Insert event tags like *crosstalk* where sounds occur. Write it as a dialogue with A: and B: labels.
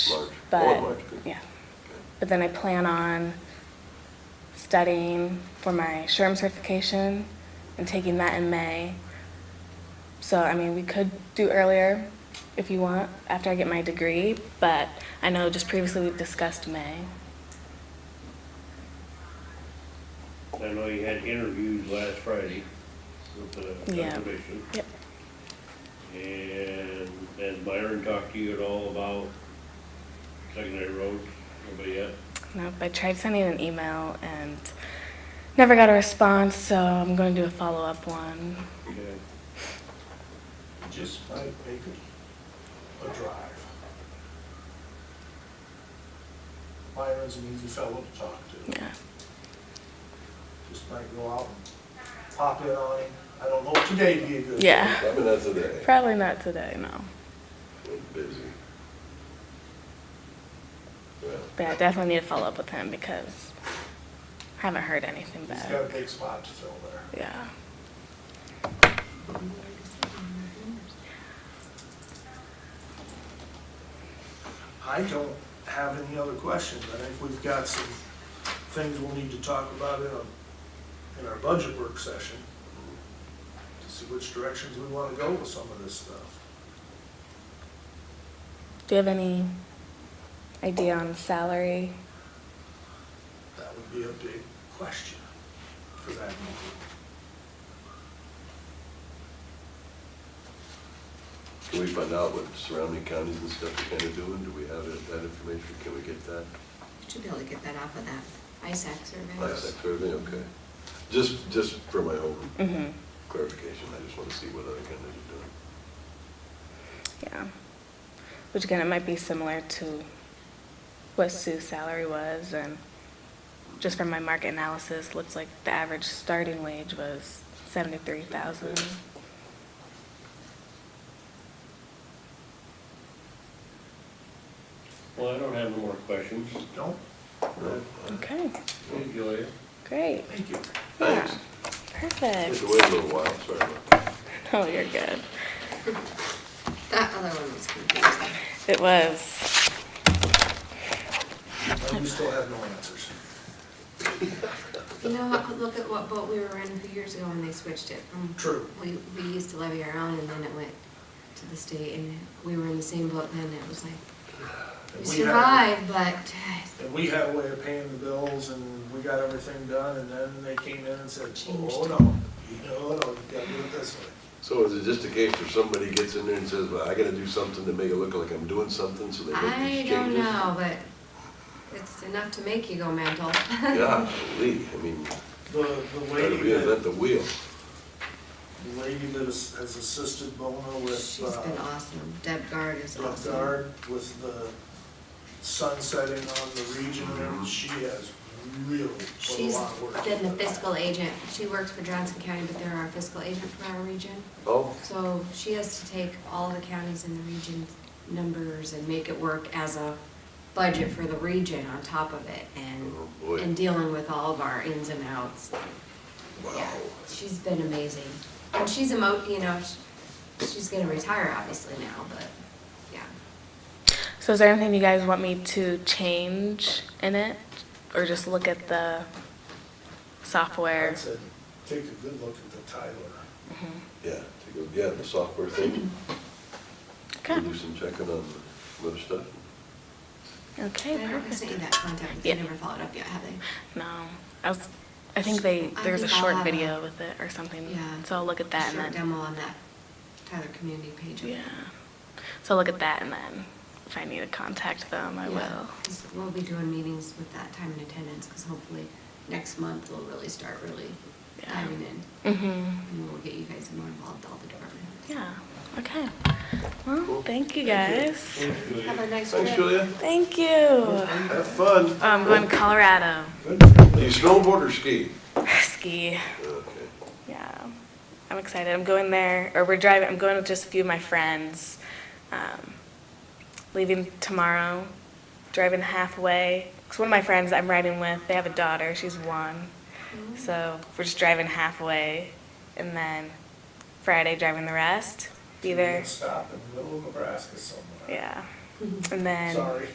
A: Large.
B: but,
A: Oh, large, good.
B: yeah. But then I plan on studying for my SHRM certification and taking that in May. So, I mean, we could do earlier if you want, after I get my degree, but I know just previously we discussed May.
C: I know you had interviews last Friday with the
B: Yeah.
C: commission.
B: Yep.
C: And has Byron talked to you at all about secondary roads? Nobody yet?
B: Nope, I tried sending an email and never got a response, so I'm going to do a follow up one.
C: Okay.
D: Just might make it a drive. Byron's an easy fellow to talk to.
B: Yeah.
D: Just might go out and pop in on him. I don't know, if today'd be a good. day.
B: Yeah.
A: I mean, that's today.
B: Probably not today, no.
A: We're busy. Yeah.
B: But I definitely need to follow up with him because I haven't heard anything
D: He's got a
B: back.
D: big spot to fill there.
B: Yeah.
D: I don't have any other questions. I think we've got some things we'll need to talk about in, a- in our budget work session to see which directions we want to go with some of this stuff.
B: Do you have any idea on salary?
D: That would be a big question for that meeting.
A: Can we find out what surrounding counties and stuff are kind of doing? Do we have that- that information? Can we get that?
E: Should be able to get that off of that ISAC survey.
A: Last survey, okay. Just, just for my own
B: Mm-hmm.
A: clarification, I just want to see what other counties are doing.
B: Yeah. Which again, it might be similar to what Sue's salary was and just from my market analysis, looks like the average starting wage was seventy-three thousand.
C: Well, I don't have any more questions.
D: Don't,
A: No?
B: Okay,
C: Enjoy it.
B: great.
D: thank you.
A: Thanks. Had
B: Perfect.
A: to wait a little while, sorry about that.
B: Oh, you're good.
E: That other one was confusing.
B: It was.
D: And we still have no answers.
E: You know, look at what boat we were in a few years ago when they switched it from.
D: True.
E: We, we used to levy our own and then it went to the state and we were in the same boat then. It was like, we
D: And we had-
E: survived, but
D: And we had a way of paying the bills and we got everything done and then they came in and said,
E: Changed.
D: oh, no, you know, no, you gotta do it this way.
A: So is it just a case where somebody gets in there and says, well, I gotta do something to make it look like I'm doing something, so they make
E: I
A: these changes?
E: don't know, but it's enough to make you go mental.
A: Yeah, Lee, I mean,
D: The, the
A: try to
D: lady that,
A: reinvent the wheel.
D: the lady that has has assisted Bona with,
E: *laughs* She's been
D: uh,
E: awesome. Deb Guard is
D: with
E: awesome.
D: guard, with the sun setting on the region and everything, she has really put a
E: She's
D: lot of work.
E: been the
D: into that.
E: fiscal agent. She works for Johnson County, but they're our fiscal agent for our region.
A: Oh,
E: So she has to take all the counties in the region's numbers and make it work as a budget for the region on top of it
A: Oh,
E: and,
A: boy.
E: and dealing with all of our ins and outs.
A: wow.
E: Yeah, She's been amazing. And she's a mo, you know, sh- she's gonna retire obviously now, but, yeah.
B: So is there anything you guys want me to change in it? Or just look at the software? Mm-hmm.
D: I'd say, take a good look at the Tyler.
A: Yeah, to go, yeah, the software thing.
B: Okay,
A: We'll do some checking on the other stuff.
B: okay,
E: And I don't- I sent you
B: perfect.
E: that contact, they
B: Yeah.
E: never followed up yet, have they?
B: No, I was, I think they,
E: I
B: there's a
E: think I'll
B: short
E: have a-
B: video with it or something.
E: Yeah.
B: So I'll look at that
E: Short
B: and then,
E: demo on that Tyler Community page.
B: yeah. So I'll look at that and then if I need to contact them, I will.
E: 'cause we'll be doing meetings with that time and attendance, because hopefully next month we'll really start really
B: Yeah.
E: diving in.
B: Mm-hmm,
E: And we'll get you guys more involved, all the department heads.
B: yeah, okay. Well,
A: Cool.
B: thank you guys.
C: Enjoy
E: Have a nice trip.
A: Thanks, Julia.
B: Thank you. Um,
A: Have fun.
B: I'm going to Colorado. *laughs*
A: Do you snowboard or ski?
B: Ski.
A: Okay.
B: Yeah, I'm excited. I'm going there, or we're driving. I'm going with just a few of my friends. Um, leaving tomorrow, driving halfway. Because one of my friends I'm riding with, they have a daughter. She's one, so we're just driving halfway, and then Friday driving the rest. Be there.
D: Stop in the middle of Nebraska somewhere.
B: Yeah, and then.
D: Sorry.